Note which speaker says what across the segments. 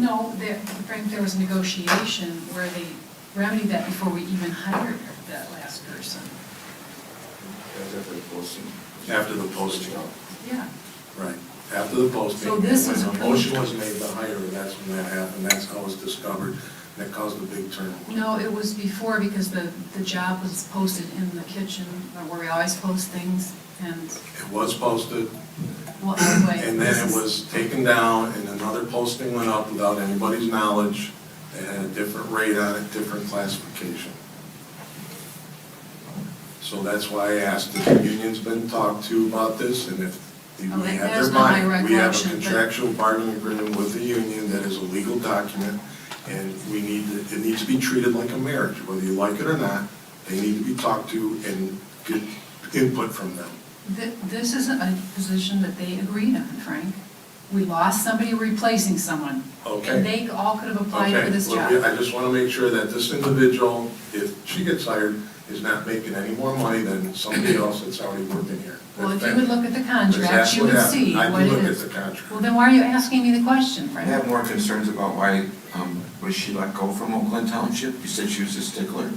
Speaker 1: No, there, Frank, there was negotiation where they remedied that before we even hired that last person.
Speaker 2: That's after the posting.
Speaker 3: After the posting.
Speaker 1: Yeah.
Speaker 3: Right, after the posting.
Speaker 1: So this is
Speaker 3: When the
Speaker 1: approved.
Speaker 3: motion was made to hire, that's when that happened, that's how it was discovered, and it caused the big turnover.
Speaker 1: No, it was before because the, the job was posted in the kitchen where we always post things and,
Speaker 3: It was posted,
Speaker 1: well, anyway.
Speaker 3: and then
Speaker 1: this
Speaker 3: it
Speaker 1: is-
Speaker 3: was taken down, and another posting went up without anybody's knowledge, It had a different rate on it, different classification. So that's why I asked, if the union's been talked to about this, and if they
Speaker 1: Oh, that-
Speaker 3: have
Speaker 1: that's
Speaker 3: their
Speaker 1: not my
Speaker 3: mind, we have a
Speaker 1: recollection, but-
Speaker 3: contractual bargaining agreement with the union that is a legal document, and we need, to- it needs to be treated like a marriage, whether you like it or not, they need to be talked to and get input from them.
Speaker 1: Th- This isn't a position that they agreed on, Frank. We lost somebody replacing someone.
Speaker 3: Okay.
Speaker 1: And they all could have applied
Speaker 3: Okay,
Speaker 1: for this
Speaker 3: well,
Speaker 1: job.
Speaker 3: yeah, I just want to make sure that this individual, if she gets hired, is not making any more money than somebody else that's already working here.
Speaker 1: Well, if you would look at the contract,
Speaker 3: That's
Speaker 1: you
Speaker 3: what
Speaker 1: would
Speaker 3: happened.
Speaker 1: see
Speaker 3: I do
Speaker 1: what it
Speaker 3: look at
Speaker 1: is.
Speaker 3: the contract.
Speaker 1: Well, then why are you asking me the question,
Speaker 2: I
Speaker 1: Frank?
Speaker 2: have more concerns about why, um, was she let go from Oakland Township? You said she was a stickler.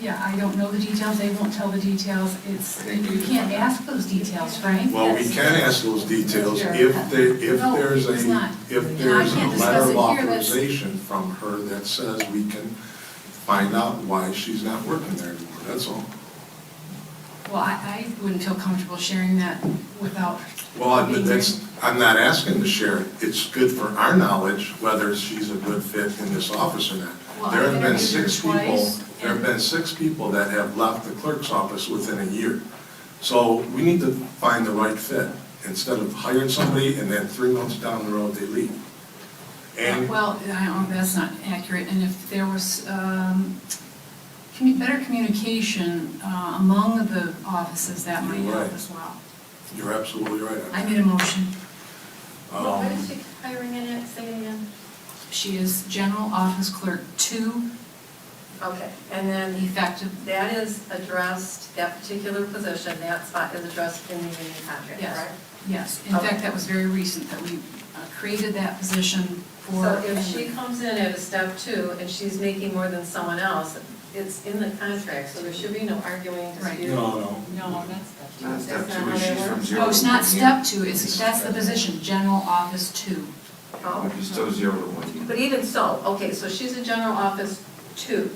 Speaker 1: Yeah, I don't know the details, they won't tell the details, it's, you can't ask those details, Frank.
Speaker 3: Well, we
Speaker 1: That's-
Speaker 3: can ask those details if there, if
Speaker 1: No,
Speaker 3: there's a,
Speaker 1: it's not.
Speaker 3: if
Speaker 1: No, I
Speaker 3: there's a
Speaker 1: can't discuss
Speaker 3: letter of
Speaker 1: it here, that's-
Speaker 3: authorization from her that says we can find out why she's not working there anymore, that's all.
Speaker 1: Well, I, I wouldn't feel comfortable sharing that without.
Speaker 3: Well, I-
Speaker 1: being
Speaker 3: but that's, I'm not asking to share it. It's good for our knowledge whether she's a good fit in this office or
Speaker 1: Well,
Speaker 3: not.
Speaker 1: I
Speaker 3: There have been
Speaker 1: interviewed her
Speaker 3: six people,
Speaker 1: twice,
Speaker 3: there have
Speaker 1: and-
Speaker 3: been six people that have left the clerk's office within a year. So we need to find the right fit instead of hiring somebody and then three months down the road they leave. And
Speaker 1: Well, I don't, that's not accurate, and if there was um, commu- better communication uh, among the offices, that might
Speaker 3: You're
Speaker 1: help
Speaker 3: right.
Speaker 1: as well.
Speaker 3: you're absolutely right. on
Speaker 1: I
Speaker 3: that.
Speaker 1: made a motion.
Speaker 3: Um,
Speaker 4: What is she hiring in at, say it again?
Speaker 1: She is general office clerk two,
Speaker 4: Okay, and then
Speaker 1: effective,
Speaker 4: that is addressed, that particular position, that spot is addressed in the union contract,
Speaker 1: Yes.
Speaker 4: right?
Speaker 1: yes. In fact, that was very recent that we uh, created that position for.
Speaker 4: So if she comes in at a step two and she's making more than someone else, it's in the contract, so there should be no arguing,
Speaker 1: Right.
Speaker 4: dispute.
Speaker 3: No, no.
Speaker 5: No, that's the.
Speaker 2: Not step
Speaker 4: That's
Speaker 2: two,
Speaker 4: not how they
Speaker 2: she's
Speaker 4: work. Oh,
Speaker 2: from zero.
Speaker 1: No, Oh, it's not
Speaker 2: to
Speaker 1: step two, it's, that's the position, general office two.
Speaker 2: one year.
Speaker 4: Oh.
Speaker 2: But you still zero to one year.
Speaker 4: But even so, okay, so she's a general office two.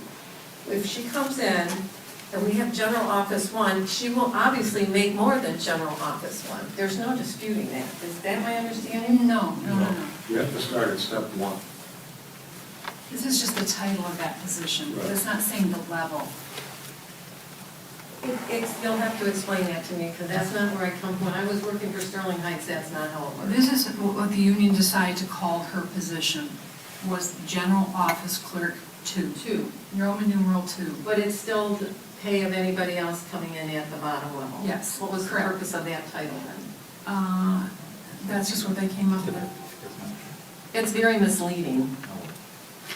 Speaker 4: If she comes in and we have general office one, she will obviously make more than general office one. There's no disputing that. Is that my understanding?
Speaker 1: No, no, no, no.
Speaker 3: You have to start at step one.
Speaker 1: This is just the title of that position, but it's not saying the level.
Speaker 4: It- It's, you'll have to explain that to me, because that's not where I come from. When I was working for Sterling Heights, that's not how it works.
Speaker 1: This is what the union decided to call her position, was general office clerk two,
Speaker 4: Two,
Speaker 1: Roman numeral two.
Speaker 4: but it's still the pay of anybody else coming in at the bottom level.
Speaker 1: Yes,
Speaker 4: What was the
Speaker 1: correct.
Speaker 4: purpose of that title then?
Speaker 1: Uh, That's just what they came up with.
Speaker 4: It's very misleading.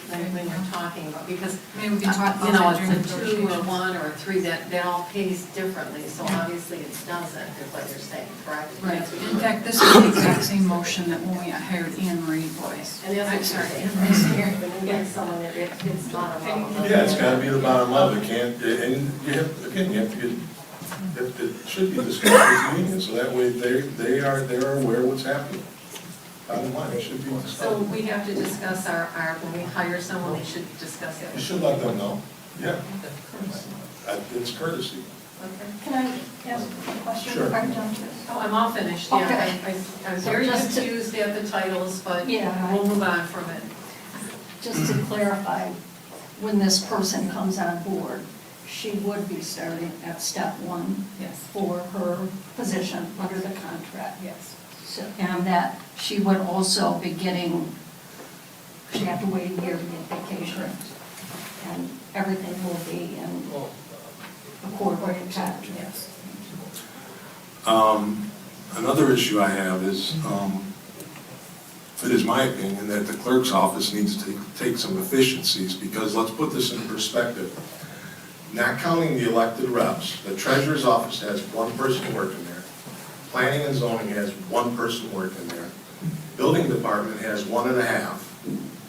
Speaker 4: when when you're talking about, because,
Speaker 1: Maybe we
Speaker 4: you
Speaker 1: can talk about
Speaker 4: know,
Speaker 1: that during
Speaker 4: it's a two or
Speaker 1: negotiations.
Speaker 4: one or a three, that, that all pays differently, so obviously it doesn't, is what you're saying, correct?
Speaker 1: Right,
Speaker 4: That's what
Speaker 1: in
Speaker 4: you're-
Speaker 1: fact, this is the exact same motion that when we hired Anne Marie Boyce.
Speaker 4: And that's
Speaker 1: I'm
Speaker 4: what
Speaker 1: sorry.
Speaker 4: you're saying, right? When you get someone that it- it's bottom level.
Speaker 3: Yeah, it's gotta be the bottom level, you can't, and you have, again, you have to get, it- it should be discussed with the union, so that way they, they are, they're aware what's happening. Bottom line, it should be
Speaker 4: So
Speaker 3: discussed.
Speaker 4: we have to discuss our, our, when we hire someone, we should discuss it.
Speaker 3: You should let them know, yeah, Uh, it's courtesy.
Speaker 4: Okay.
Speaker 6: Can I ask a question?
Speaker 3: Sure.
Speaker 6: Pardon, don't you?
Speaker 4: Oh, I'm all finished, yeah.
Speaker 6: Okay.
Speaker 4: I- I- I was very
Speaker 6: So just to-
Speaker 4: confused at the titles, but
Speaker 6: Yeah.
Speaker 4: we'll move on from it.
Speaker 6: Just to clarify, when this person comes on board, she would be starting at step one
Speaker 1: Yes,
Speaker 6: for her position under the contract.
Speaker 1: yes.
Speaker 6: So- And that she would also be getting, she'd have to wait a year to get vacation. And everything will be in accord with the contract.
Speaker 1: Yes.
Speaker 3: Um, Another issue I have is, um, it is my opinion that the clerk's office needs to take some efficiencies, because let's put this in perspective. Not counting the elected reps, the treasurer's office has one person working there. Planning and zoning has one person working there. Building department has one and a half.